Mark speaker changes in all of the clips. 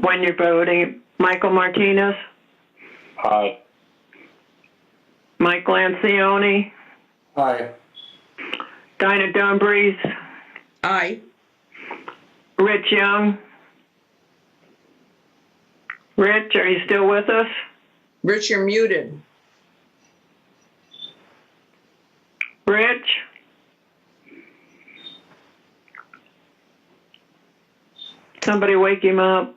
Speaker 1: when you're voting, Michael Martinez,
Speaker 2: Aye.
Speaker 1: Mike Lancioni,
Speaker 2: Aye.
Speaker 1: Dinah Dumbriz,
Speaker 3: Aye.
Speaker 1: Rich Young. Rich, are you still with us?
Speaker 3: Rich, you're muted.
Speaker 1: Rich? Somebody wake him up.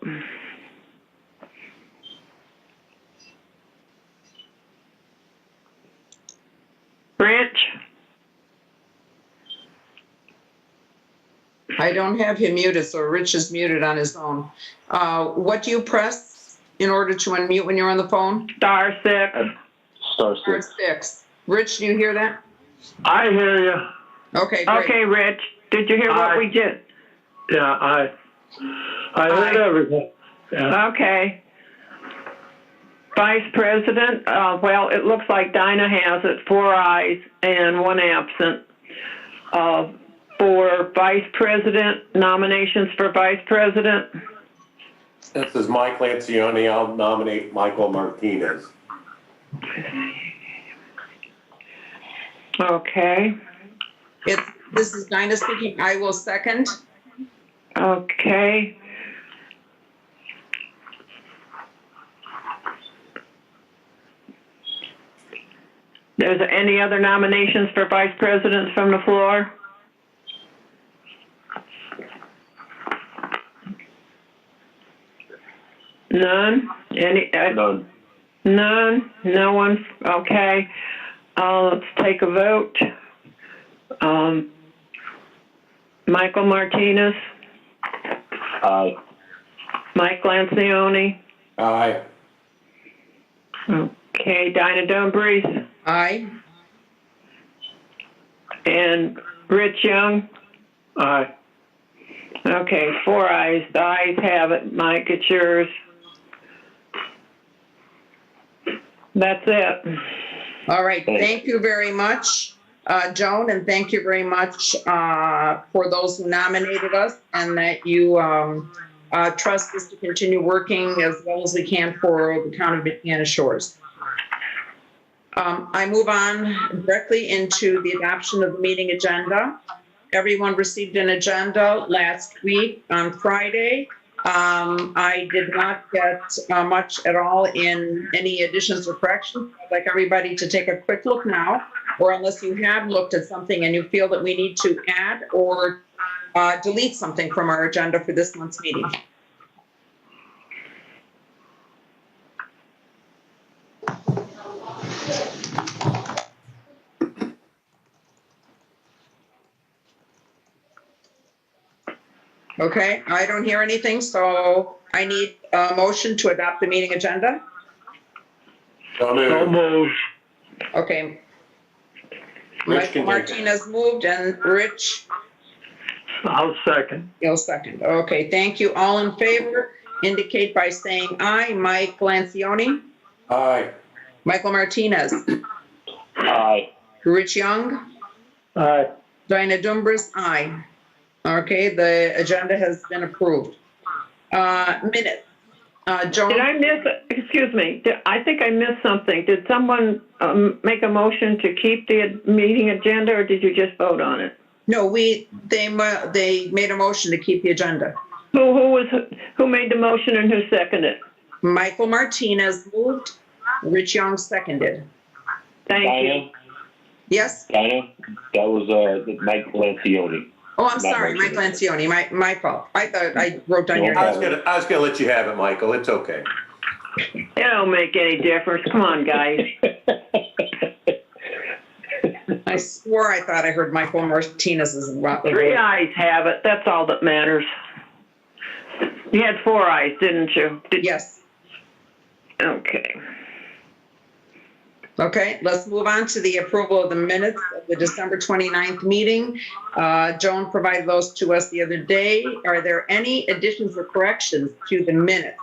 Speaker 1: Rich?
Speaker 3: I don't have him muted, so Rich is muted on his own. Uh, What do you press in order to unmute when you're on the phone?
Speaker 1: Star six.
Speaker 2: Star
Speaker 3: Star six. Rich, do you hear that?
Speaker 4: I hear you.
Speaker 3: Okay, great.
Speaker 1: Okay, Rich, did you hear what
Speaker 4: Aye.
Speaker 1: we just?
Speaker 4: Yeah, I. I heard
Speaker 1: Aye.
Speaker 4: everything. Yeah.
Speaker 1: Okay. Vice President, uh, well, it looks like Dinah has it, four ayes and one absent. Uh, For Vice President, nominations for Vice President,
Speaker 2: This is Mike Lancioni. I'll nominate Michael Martinez.
Speaker 1: okay,
Speaker 3: It's, this is Dinah speaking. I will second.
Speaker 1: okay. There's any other nominations for Vice Presidents from the floor? None? Any, uh,
Speaker 2: None.
Speaker 1: None, no one, okay. Uh, let's take a vote. Um, Michael Martinez,
Speaker 2: Aye.
Speaker 1: Mike Lancioni,
Speaker 2: Aye.
Speaker 1: okay, Dinah Dumbriz,
Speaker 3: Aye.
Speaker 1: and Rich Young.
Speaker 4: Aye.
Speaker 1: Okay, four eyes. The eyes have it. Mike, it's yours. That's it.
Speaker 3: All right, thank you very much, uh, Joan, and thank you very much uh, for those who nominated us and that you um, uh, trust us to continue working as well as we can for the town of Banana Shores. Um, I move on directly into the adoption of the meeting agenda. Everyone received an agenda last week on Friday. Um, I did not get uh, much at all in any additions or corrections. I'd like everybody to take a quick look now, or unless you have looked at something and you feel that we need to add or uh, delete something from our agenda for this month's meeting. Okay, I don't hear anything, so I need a motion to adopt the meeting agenda.
Speaker 2: So
Speaker 4: So
Speaker 2: moved.
Speaker 4: moved.
Speaker 3: Okay.
Speaker 2: Rich
Speaker 3: Michael
Speaker 2: can take it.
Speaker 3: Martinez moved and Rich
Speaker 4: I'll second.
Speaker 3: Gill second. Okay, thank you. All in favor indicate by saying aye. Mike Lancioni,
Speaker 2: Aye.
Speaker 3: Michael Martinez,
Speaker 2: Aye.
Speaker 3: Rich Young,
Speaker 4: Aye.
Speaker 3: Dinah Dumbriz, aye. Okay, the agenda has been approved. Uh, minute. Uh,
Speaker 1: Did
Speaker 3: Joan,
Speaker 1: I miss, excuse me, did- I think I missed something. Did someone um, make a motion to keep the meeting agenda, or did you just vote on it?
Speaker 3: no, we, they, mu- they made a motion to keep the agenda.
Speaker 1: Who, who was, who made the motion and who seconded? it?
Speaker 3: Michael Martinez moved, Rich Young seconded.
Speaker 1: Thank you.
Speaker 5: Dinah,
Speaker 3: Yes?
Speaker 5: Dinah, that was, uh, Mike Lancioni.
Speaker 3: Oh, I'm
Speaker 5: Not
Speaker 3: sorry, Mike
Speaker 5: Martinez.
Speaker 3: Lancioni, my, my fault. I thought I wrote down your
Speaker 5: No
Speaker 2: I
Speaker 3: name.
Speaker 2: was gonna, I was gonna let you have it, Michael. It's okay.
Speaker 1: It don't make any difference. Come on, guys.
Speaker 3: I swore I thought I heard Michael Martinez's.
Speaker 1: Three uh, eyes have it. That's all that matters. You had four eyes, didn't you? Did-
Speaker 3: Yes.
Speaker 1: Okay.
Speaker 3: Okay, let's move on to the approval of the minutes of the December 29th meeting. Uh, Joan provided those to us the other day. Are there any additions or corrections to the minutes?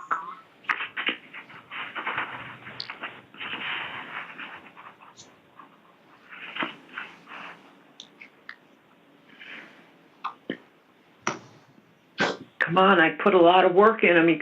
Speaker 1: Come on, I put a lot of work in them. You